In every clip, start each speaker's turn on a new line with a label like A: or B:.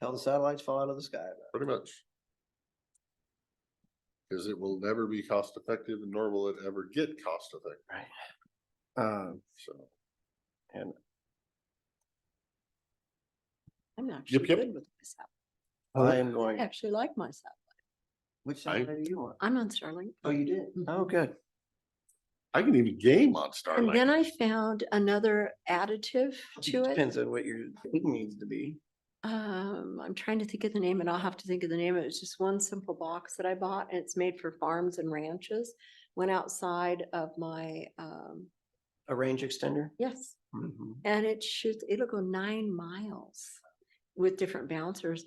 A: Hell, the satellites fall out of the sky.
B: pretty much. Cause it will never be cost effective nor will it ever get cost effective,
A: Um,
B: so.
C: I'm actually
B: yep.
C: good with myself.
A: I am going,
C: I actually like myself.
A: which
B: I-
A: satellite do you want?
C: I'm on Starlink. Mm-hmm.
A: Oh, you did? Oh, good.
B: I can even game on
C: And then
B: Starlink.
C: I found another additive to it.
A: Depends on what your thing needs to be.
C: Um, I'm trying to think of the name and I'll have to think of the name. It was just one simple box that I bought and it's made for farms and ranches. Went outside of my, um,
A: A range extender?
C: yes,
A: Mhm.
C: and it should, it'll go nine miles with different bouncers.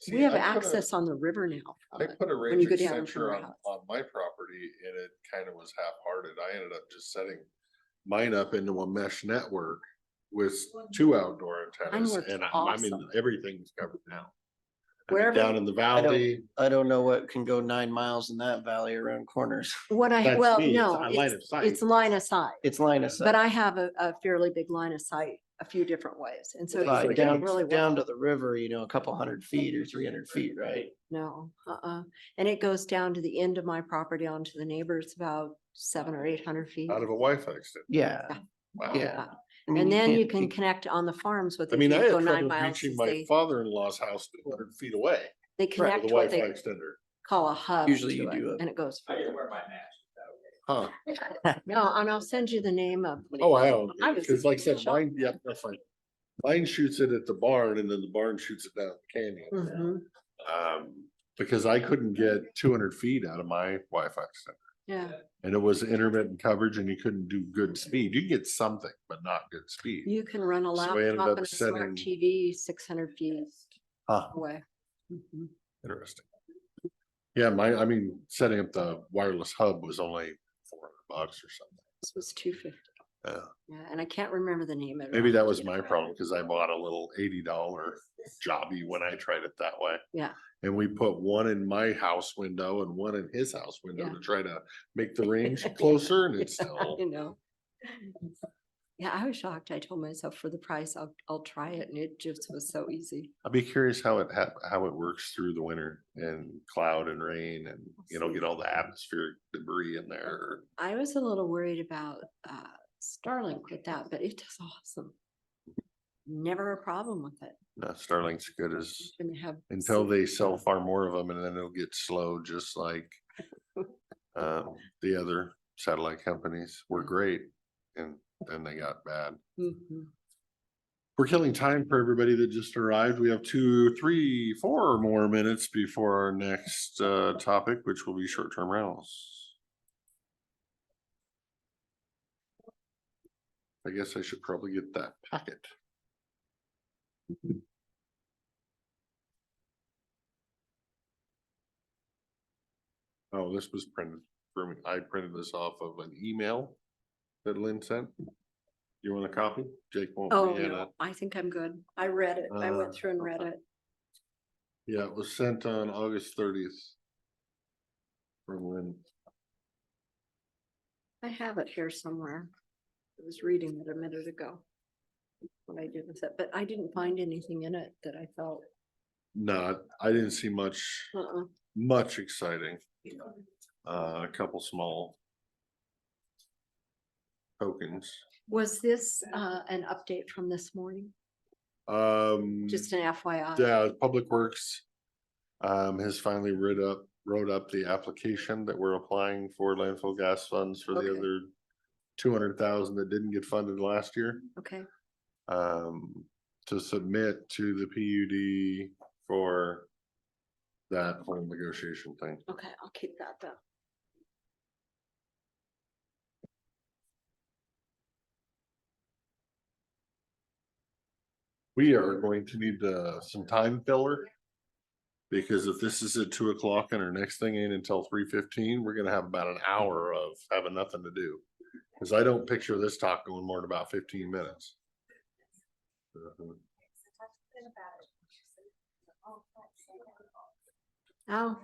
B: See,
C: We have
B: I put a-
C: access on the river now. from
B: I
C: it.
B: put a
C: when you
B: range
C: go down from
B: extender
C: our
B: on,
C: house.
B: on my property and it kind of was half-hearted. I ended up just setting mine up into a mesh network with two outdoor antennas
C: works
B: and I- I'm in,
C: awesome.
B: everything's covered now. I mean,
C: Wherever-
B: Down in the valley,
A: I don't know what can go nine miles in that valley around corners.
C: What I,
B: That's
C: well,
B: me, it's
C: no,
B: on line
C: it's,
B: of sight.
C: it's line of sight.
A: It's line of
C: But
A: sight.
C: I have a, a fairly big line of sight a few different ways, and so. it's
A: Right,
C: working
A: down,
C: really
A: down to
C: well.
A: the river, you know, a couple hundred feet or three hundred feet, right?
C: No, uh-uh, and it goes down to the end of my property onto the neighbors about seven or eight hundred feet.
B: out of a Wi-Fi extender.
A: Yeah,
B: Wow.
A: yeah.
C: Wow.
A: I mean,
C: And then you
A: can't-
C: can connect on the farms with.
B: I
C: it.
B: mean,
C: You
B: I
C: go
B: had
C: nine
B: trouble
C: miles
B: reaching
C: as
B: my
C: they-
B: father-in-law's house two hundred feet away
C: They
B: with
C: connect
B: a
C: what
B: Wi-Fi
C: they
B: extender.
C: call a hub.
A: Usually you
C: to it,
A: do a-
C: And it goes. further.
B: Huh.
C: No, and I'll send you the name of. what it
B: Oh,
C: is.
B: hell,
C: I was
B: because like I said,
C: shocked.
B: mine, yeah, that's fine. Mine shoots it at the barn and then the barn shoots it down the canyon.
C: Mhm,
B: Um, because I couldn't get two hundred feet out of my Wi-Fi extender.
C: Yeah,
B: And it was intermittent coverage and you couldn't do good speed. You could get something, but not good speed.
C: you can run a
B: So I ended
C: laptop
B: up
C: and a
B: sending-
C: smart TV six hundred feet
B: Huh,
C: away. Mhm.
B: interesting. Yeah, my, I mean, setting up the wireless hub was only four hundred bucks or something.
C: This was two fifty.
B: Yeah.
C: Yeah, and I can't remember the name of it.
B: Maybe
C: I'll
B: that
C: have to
B: was
C: get
B: my
C: it.
B: problem, cause I bought a little eighty dollar jobby when I tried it that way.
C: Yeah.
B: And we put one in my house window and one in his house window
C: Yeah.
B: to try to make the range closer and it's still,
C: You know. Yeah, I was shocked. I told myself for the price, I'll, I'll try it and it just was so easy.
B: I'd be curious how it hap- how it works through the winter and cloud and rain and, you know, get all the atmospheric debris in there.
C: I was a little worried about uh Starlink with that, but it does awesome. Never a problem with it.
B: No, Starlink's good as,
C: And they have.
B: until
C: so-
B: they sell far more of them and then it'll get slow, just like um, the other satellite companies were great and then they got bad.
C: Mhm.
B: We're killing time for everybody that just arrived. We have two, three, four more minutes before our next uh topic, which will be short-term rentals. I guess I should probably get that packet. Oh, this was printed for me. I printed this off of an email that Lynn sent. You want a copy? Jake won't.
C: Oh,
B: be in it.
C: no, I think I'm good. I read it. I
B: Uh,
C: went through and read
B: okay.
C: it.
B: Yeah, it was sent on August thirtieth. From when,
C: I have it here somewhere. I was reading it a minute ago. What I did with it, but I didn't find anything in it that I felt,
B: not, I didn't see much,
C: uh-uh.
B: much exciting. Uh, a couple small. Tokens,
C: Was this, uh, an update from this morning?
B: um,
C: Just an FYI?
B: yeah, Public Works. Um, has finally rid up, wrote up the application that we're applying for landfill gas funds for the
C: Okay.
B: other. Two hundred thousand that didn't get funded last year.
C: Okay,
B: um, to submit to the PUD for that whole negotiation thing.
C: okay, I'll keep that though.
B: We are going to need uh, some time filler. Because if this is at two o'clock and our next thing ain't until three fifteen, we're gonna have about an hour of having nothing to do. Cause I don't picture this talk going more than about fifteen minutes. Uh-huh.
C: Oh,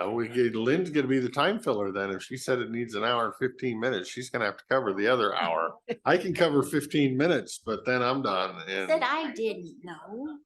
B: Uh, we, get- Lynn's gonna be the time filler then. If she said it needs an hour and fifteen minutes, she's gonna have to cover the other hour. I can cover fifteen minutes, but then I'm done and
D: Said I didn't know.